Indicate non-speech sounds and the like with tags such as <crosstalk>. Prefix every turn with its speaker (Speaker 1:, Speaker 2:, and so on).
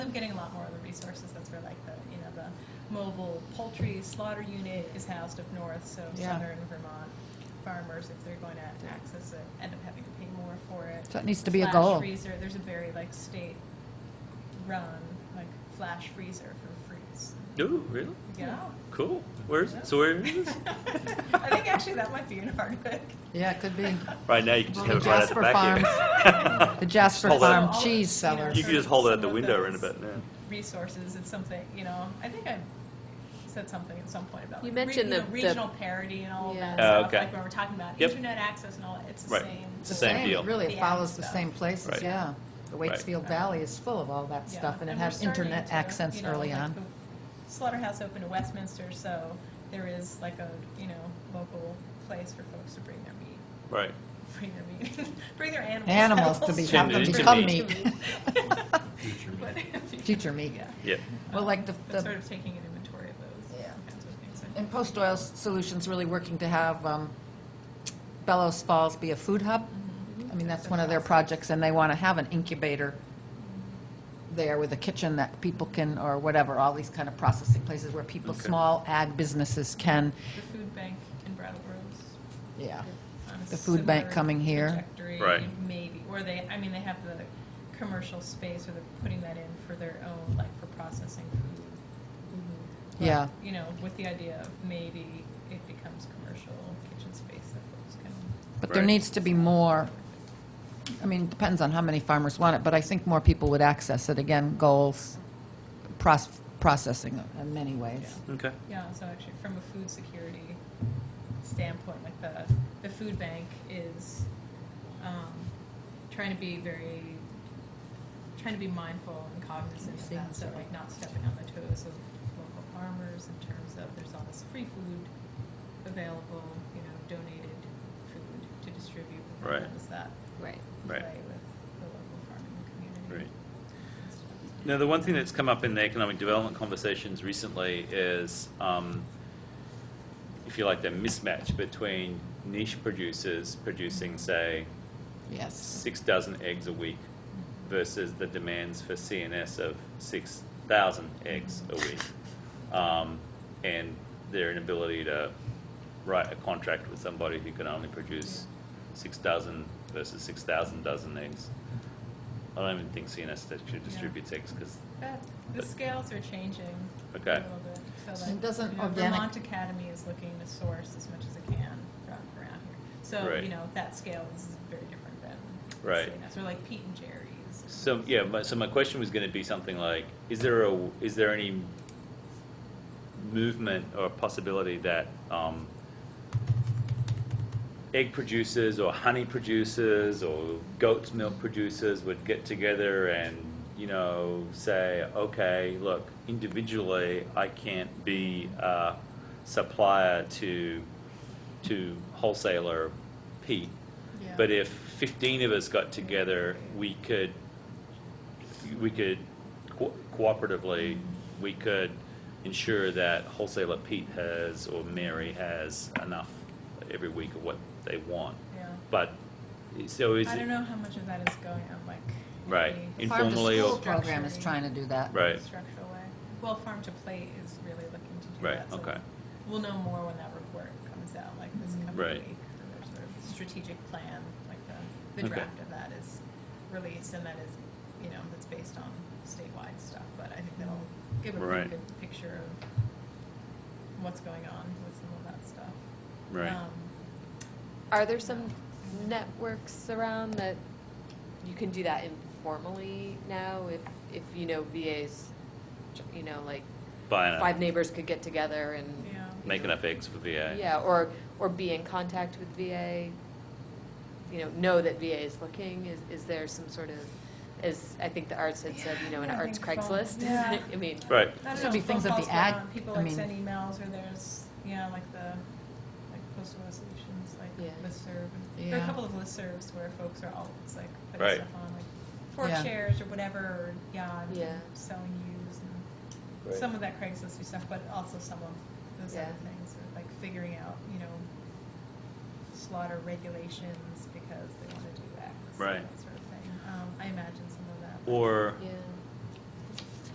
Speaker 1: I'm getting a lot more of the resources. That's where like the, you know, the mobile poultry slaughter unit is housed up north, so
Speaker 2: Yeah.
Speaker 1: southern Vermont farmers, if they're going to access it, end up having to pay more for it.
Speaker 2: So it needs to be a
Speaker 1: Flash
Speaker 2: goal.
Speaker 1: freezer, there's a very like state run, like flash freezer for freeze.
Speaker 3: Ooh, really?
Speaker 2: Hmm.
Speaker 1: Yeah.
Speaker 2: <laughs>
Speaker 3: Cool. Where is it? So where is this?
Speaker 1: <laughs> I think actually that might be in Hardwick.
Speaker 2: Yeah, it could
Speaker 1: <laughs>
Speaker 2: be.
Speaker 3: <laughs> Right now, you can just
Speaker 2: Well,
Speaker 3: have it right at the
Speaker 2: Jasper
Speaker 3: back <laughs>
Speaker 2: The
Speaker 3: end.
Speaker 2: Jasper
Speaker 3: Hold on.
Speaker 2: Farm cheese sellers.
Speaker 3: You can just hold it at the
Speaker 1: Some of
Speaker 3: window right
Speaker 1: those
Speaker 3: about now.
Speaker 1: resources. It's something, you know, I think I said something at some point about
Speaker 4: You
Speaker 1: like,
Speaker 4: mentioned
Speaker 1: re-
Speaker 4: the-
Speaker 1: know,
Speaker 4: the-
Speaker 1: regional parity and all of
Speaker 4: Yeah.
Speaker 1: that
Speaker 3: Oh,
Speaker 1: stuff.
Speaker 3: okay.
Speaker 1: Like when we're talking about
Speaker 3: Yep.
Speaker 1: internet access and all that, it's the
Speaker 3: Right.
Speaker 1: same.
Speaker 3: It's the same deal.
Speaker 2: Really, it
Speaker 1: Yeah.
Speaker 2: follows the
Speaker 1: Stuff.
Speaker 2: same places,
Speaker 3: Right.
Speaker 2: yeah. The
Speaker 3: Right.
Speaker 2: Waitsfield Valley is full of all that
Speaker 1: Yeah.
Speaker 2: stuff, and it
Speaker 1: we're
Speaker 2: has
Speaker 1: starting
Speaker 2: internet
Speaker 1: to,
Speaker 2: access
Speaker 1: you know,
Speaker 2: early
Speaker 1: like,
Speaker 2: on.
Speaker 1: the Slaughterhouse opened to Westminster, so there is like a, you know, local place for folks to bring their meat.
Speaker 3: Right.
Speaker 1: Bring their meat. <laughs> bring their animals.
Speaker 2: Animals to be,
Speaker 3: To
Speaker 2: have them
Speaker 3: meat.
Speaker 2: become
Speaker 3: To
Speaker 2: meat,
Speaker 1: <laughs>
Speaker 2: <laughs>
Speaker 1: meat.
Speaker 2: future meat.
Speaker 1: Yeah.
Speaker 3: Yeah.
Speaker 2: Well, like the,
Speaker 1: But sort
Speaker 2: the
Speaker 1: of taking an inventory of those
Speaker 2: Yeah.
Speaker 1: kinds of things.
Speaker 2: And Post Oil Solutions really working to have um, Bellows Falls be a food hub.
Speaker 1: Mm-hmm.
Speaker 2: I mean, that's one of their projects, and they want to have an incubator there with a kitchen that people can, or whatever, all these kind of processing places where people,
Speaker 3: Okay.
Speaker 2: small ag businesses can,
Speaker 1: The food bank in Brattleboro's.
Speaker 2: yeah.
Speaker 1: on a
Speaker 2: The food bank
Speaker 1: similar
Speaker 2: coming here.
Speaker 1: trajectory,
Speaker 3: Right.
Speaker 1: Maybe, or they, I mean, they have the commercial space, or they're putting that in for their own, like, for processing food. But,
Speaker 2: Yeah.
Speaker 1: You know, with the idea of maybe it becomes commercial kitchen space that folks can.
Speaker 2: But there
Speaker 3: Right.
Speaker 2: needs to be more, I mean, depends on how many farmers want it, but I think more people would access it, again, goals, pros- processing in many ways.
Speaker 3: Okay.
Speaker 1: Yeah, so actually, from a food security standpoint, like the, the food bank is um, trying to be very, trying to be mindful and cognizant of that, so like not stepping on the toes of local farmers in terms of there's all this free food available, you know, donated food to distribute. but then
Speaker 3: Right.
Speaker 1: How does that
Speaker 4: Right.
Speaker 3: Right.
Speaker 1: play with the local farming community?
Speaker 3: Right. Now, the one thing that's come up in the economic development conversations recently is, um, if you like, the mismatch between niche producers producing, say,
Speaker 2: Yes.
Speaker 3: six dozen eggs a week versus the demands for CNS of 6,000 eggs a week. Um, and their inability to write a contract with somebody who can only produce six dozen versus 6,000 dozen eggs. I don't even think CNS actually distributes eggs because,
Speaker 1: That, Eh, the scales are changing a
Speaker 3: Okay.
Speaker 1: little bit. So
Speaker 2: And
Speaker 1: like,
Speaker 2: doesn't
Speaker 1: you know,
Speaker 2: organic-
Speaker 1: Vermont Academy is looking to source as much as it can from around here. So,
Speaker 3: Right.
Speaker 1: you know, that scale is very different than
Speaker 3: Right.
Speaker 1: CNS, or like Pete and Jerry's.
Speaker 3: so yeah, my, so my question was going to be something like, is there a, is there any movement or possibility that um, egg producers or honey producers or goat's milk producers would get together and you know say okay look individually i can't be a supplier to to wholesaler pete
Speaker 1: Yeah.
Speaker 3: but if 15 of us got together we could we could co- cooperatively we could ensure that wholesaler Pete has or Mary has enough every week of what they want.
Speaker 1: Yeah.
Speaker 3: But so is
Speaker 1: I don't
Speaker 3: it
Speaker 1: know how much of that is going on, like.
Speaker 3: Right.
Speaker 1: the
Speaker 3: In-
Speaker 2: Farm to
Speaker 3: Informally or-
Speaker 2: School program is trying to do that.
Speaker 3: right?
Speaker 1: Structural way. Well, Farm to Plate is really looking to do
Speaker 3: Right,
Speaker 1: that. so
Speaker 3: okay.
Speaker 1: We'll know more when that report comes out, like this coming
Speaker 3: Right.
Speaker 1: week. or their sort of Strategic plan, like the, the
Speaker 3: Okay.
Speaker 1: draft of that is released and that is, you know, that's based on statewide stuff. But I think that'll give a pretty
Speaker 3: Right.
Speaker 1: good picture of what's going on with some of that stuff.
Speaker 3: Right.
Speaker 1: Um,
Speaker 4: Are there some networks around that you can do that informally now? If, if you know, VAs, you know, like
Speaker 3: Buy enough,
Speaker 4: five neighbors could get together and.
Speaker 1: Yeah.
Speaker 4: you
Speaker 3: make
Speaker 4: know,
Speaker 3: enough eggs for VA.
Speaker 4: Yeah, or, or be in contact with VA, you know, know that VA is looking, is, is there some sort of, as I think the arts had said, you know, an
Speaker 1: Yeah, I
Speaker 4: arts
Speaker 1: think so.
Speaker 4: Craigslist?
Speaker 1: Yeah.
Speaker 4: <laughs> I mean,
Speaker 3: Right.
Speaker 1: I don't
Speaker 2: Should be
Speaker 1: know,
Speaker 2: things
Speaker 1: phone
Speaker 2: at the
Speaker 1: calls go out,
Speaker 2: ag-
Speaker 1: People
Speaker 2: I
Speaker 1: like
Speaker 2: mean-
Speaker 1: send emails or there's, you know, like the, like postal resolutions, like
Speaker 4: Yeah.
Speaker 1: listserv. and- There are
Speaker 2: Yeah.
Speaker 1: a couple of listservs where folks are all, it's like,
Speaker 3: Right.
Speaker 1: putting stuff on, like,
Speaker 2: Yeah.
Speaker 1: fork chairs or whatever, or, yeah, I'm
Speaker 4: Yeah.
Speaker 1: selling used and
Speaker 3: Right.
Speaker 1: some of that Craigslist stuff, but also some of those other
Speaker 4: Yeah.
Speaker 1: things, or, like figuring out, you know, slaughter regulations because they want to do X.
Speaker 3: Right.
Speaker 1: That sort of thing. Um, I imagine some of that.
Speaker 3: Or
Speaker 4: Yeah.